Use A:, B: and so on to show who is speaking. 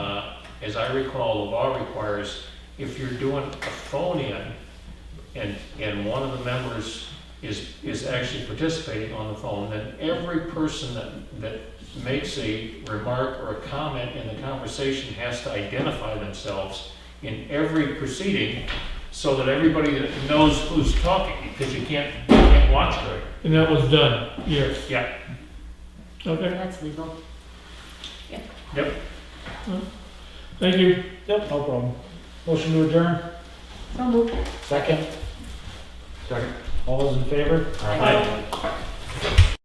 A: Uh, as I recall, the law requires, if you're doing a phone-in, and, and one of the members is, is actually participating on the phone, then every person that, that makes a remark or a comment in the conversation has to identify themselves in every proceeding, so that everybody that knows who's talking, because you can't, you can't watch her.
B: And that was done, yes.
A: Yeah.
B: Okay,
C: That's legal.
A: Yep.
B: thank you.
D: Yep, no problem. Motion to adjourn,
C: So moved.
D: second? Second. All those in favor?
A: Aye.